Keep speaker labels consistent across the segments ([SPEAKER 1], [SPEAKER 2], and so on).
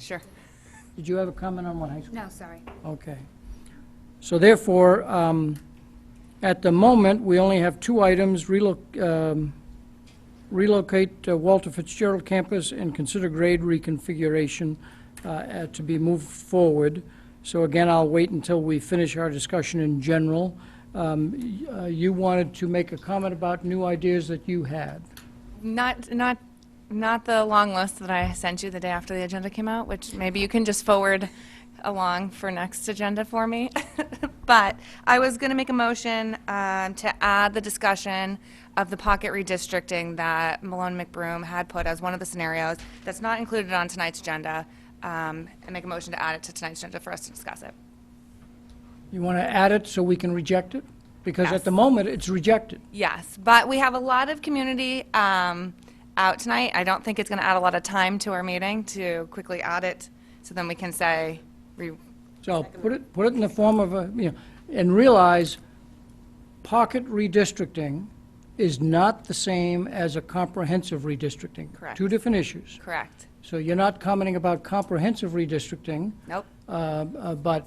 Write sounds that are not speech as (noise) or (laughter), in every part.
[SPEAKER 1] Sure.
[SPEAKER 2] Did you have a comment on what high school?
[SPEAKER 3] No, sorry.
[SPEAKER 2] Okay. So therefore, um, at the moment, we only have two items, reloc- um, relocate uh, Walter Fitzgerald campus and consider grade reconfiguration uh, uh, to be moved forward. So again, I'll wait until we finish our discussion in general. Um, y- uh, You wanted to make a comment about new ideas that you had.
[SPEAKER 1] Not, not, not the long list that I sent you the day after the agenda came out, which maybe you can just forward along for next agenda for me. (laughs) But I was going to make a motion um, to add the discussion of the pocket redistricting that Malone McBroom had put as one of the scenarios that's not included on tonight's agenda, um, and make a motion to add it to tonight's agenda for us to discuss it.
[SPEAKER 2] You want to add it so we can reject it? Because at the moment, it's rejected.
[SPEAKER 1] Yes, but we have a lot of community um, out tonight. I don't think it's going to add a lot of time to our meeting to quickly add it, so then we can say, re-
[SPEAKER 2] So put it, put it in the form of a, you know, and realize pocket redistricting is not the same as a comprehensive redistricting.
[SPEAKER 1] Correct.
[SPEAKER 2] Two different issues.
[SPEAKER 1] correct.
[SPEAKER 2] So you're not commenting about comprehensive redistricting,
[SPEAKER 1] Nope,
[SPEAKER 2] uh, uh, but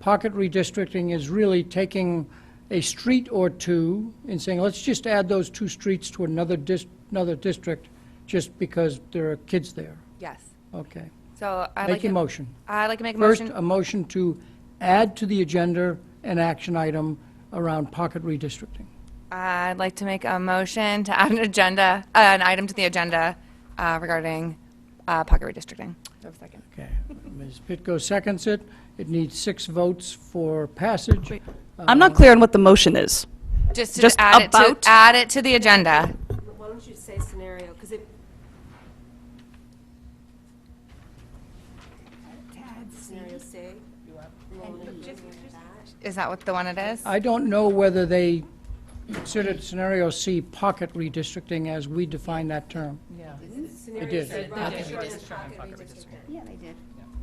[SPEAKER 2] pocket redistricting is really taking a street or two and saying, let's just add those two streets to another dis, another district just because there are kids there.
[SPEAKER 1] yes.
[SPEAKER 2] Okay.
[SPEAKER 1] So I'd like
[SPEAKER 2] Make your
[SPEAKER 1] to,
[SPEAKER 2] motion.
[SPEAKER 1] I'd like to make a
[SPEAKER 2] First,
[SPEAKER 1] motion.
[SPEAKER 2] a motion to add to the agenda an action item around pocket redistricting.
[SPEAKER 1] I'd like to make a motion to add an agenda, uh, an item to the agenda uh, regarding uh, pocket redistricting. Do I have a second?
[SPEAKER 2] Okay. Ms. Pitko seconds it. It needs six votes for passage.
[SPEAKER 4] I'm not clear on what the motion is.
[SPEAKER 1] Just to
[SPEAKER 4] Just
[SPEAKER 1] add it to,
[SPEAKER 4] about-
[SPEAKER 1] add it to the agenda.
[SPEAKER 5] Why don't you say scenario, because it, scenario say,
[SPEAKER 1] Is that what the one it is?
[SPEAKER 2] I don't know whether they considered scenario C pocket redistricting as we define that term.
[SPEAKER 5] scenario
[SPEAKER 2] did.
[SPEAKER 5] say rather short of pocket redistricting.
[SPEAKER 3] Yeah, they did.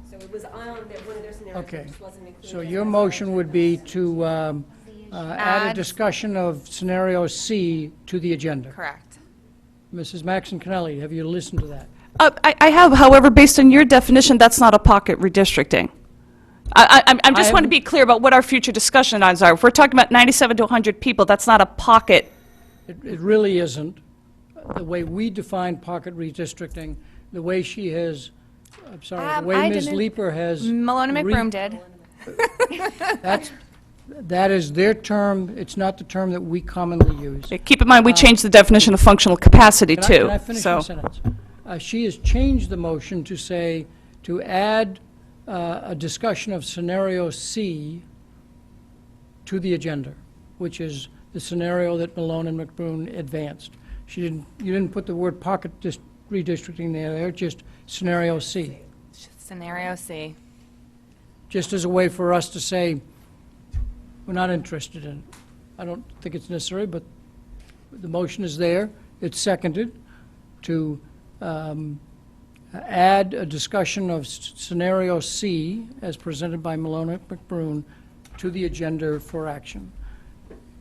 [SPEAKER 5] So it was on that one of their scenarios,
[SPEAKER 2] Okay.
[SPEAKER 5] it just wasn't included.
[SPEAKER 2] So your motion would be to um, uh, add a
[SPEAKER 1] Add-
[SPEAKER 2] discussion of scenario C to the agenda.
[SPEAKER 1] Correct.
[SPEAKER 2] Mrs. Maxon Kennelly, have you listened to that?
[SPEAKER 4] Uh, I I have, however, based on your definition, that's not a pocket redistricting. I I- I'm- I'm just want to
[SPEAKER 2] I'm-
[SPEAKER 4] be clear about what our future discussion items are. If we're talking about 97 to 100 people, that's not a pocket.
[SPEAKER 2] It, it really isn't. The way we define pocket redistricting, the way she has, I'm sorry,
[SPEAKER 1] Um,
[SPEAKER 2] the
[SPEAKER 1] I
[SPEAKER 2] way Ms.
[SPEAKER 1] didn't-
[SPEAKER 2] Leaper has.
[SPEAKER 1] Malone
[SPEAKER 2] re-
[SPEAKER 1] McBroom did.
[SPEAKER 2] That's, that is their term, it's not the term that we commonly use.
[SPEAKER 4] Keep in mind, we changed the definition of functional capacity,
[SPEAKER 2] Can I-
[SPEAKER 4] too.
[SPEAKER 2] Can I finish
[SPEAKER 4] So-
[SPEAKER 2] my sentence? Uh, She has changed the motion to say, to add uh, a discussion of scenario C to the agenda, which is the scenario that Malone and McBroom advanced. She didn't, you didn't put the word pocket dis- redistricting there, there, just scenario C,
[SPEAKER 1] Scenario C.
[SPEAKER 2] just as a way for us to say, we're not interested in it. I don't think it's necessary, but the motion is there, it's seconded, to um, add a discussion of s- scenario C, as presented by Malone McBroom, to the agenda for action.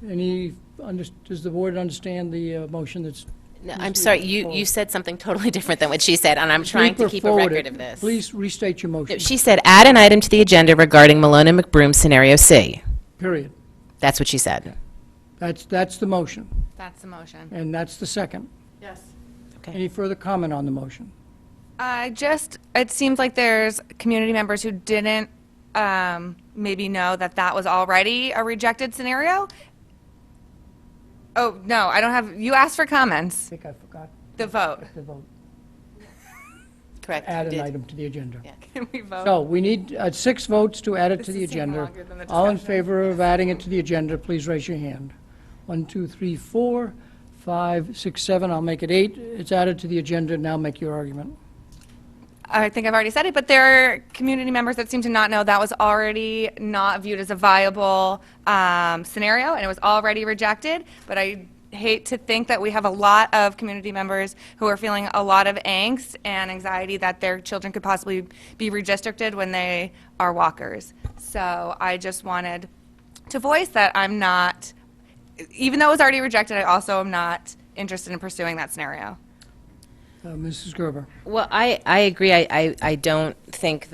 [SPEAKER 2] Any, under- does the board understand the uh, motion that's?
[SPEAKER 6] No, I'm sorry, you, you said something totally (laughs) different than what she said, and I'm trying to
[SPEAKER 2] Leaper
[SPEAKER 6] keep a
[SPEAKER 2] forwarded.
[SPEAKER 6] record of this.
[SPEAKER 2] Please restate your motion,
[SPEAKER 6] She said, add an item to the agenda regarding Malone and McBroom scenario C.
[SPEAKER 2] period.
[SPEAKER 6] That's what she said.
[SPEAKER 2] That's, that's the motion,
[SPEAKER 1] That's the motion.
[SPEAKER 2] and that's the second.
[SPEAKER 6] Okay.
[SPEAKER 2] Any further comment on the motion?
[SPEAKER 1] I just, it seems like there's community members who didn't um, maybe know that that was already a rejected scenario. Oh, no, I don't have, you asked for
[SPEAKER 2] I
[SPEAKER 1] comments,
[SPEAKER 2] think I forgot
[SPEAKER 1] the vote. (laughs)
[SPEAKER 2] to vote,
[SPEAKER 6] Correct. you
[SPEAKER 2] add an
[SPEAKER 6] did.
[SPEAKER 2] item to the agenda.
[SPEAKER 1] Can we vote?
[SPEAKER 2] So we need uh, six votes to add it to the
[SPEAKER 1] is taking
[SPEAKER 2] agenda.
[SPEAKER 1] longer than the
[SPEAKER 2] All in
[SPEAKER 1] discussion.
[SPEAKER 2] favor of adding it to the agenda, please raise your hand. One, two, three, four, five, six, seven, I'll make it eight. It's added to the agenda, now make your argument.
[SPEAKER 1] I think I've already said it, but there are community members that seem to not know that was already not viewed as a viable um, scenario, and it was already rejected. But I hate to think that we have a lot of community members who are feeling a lot of angst and anxiety that their children could possibly be redistricted when they are walkers. So I just wanted to voice that I'm not, even though it was already rejected, I also am not interested in pursuing that scenario.
[SPEAKER 2] Uh, Mrs. Gerber.
[SPEAKER 6] Well, I, I agree. I, I, I don't think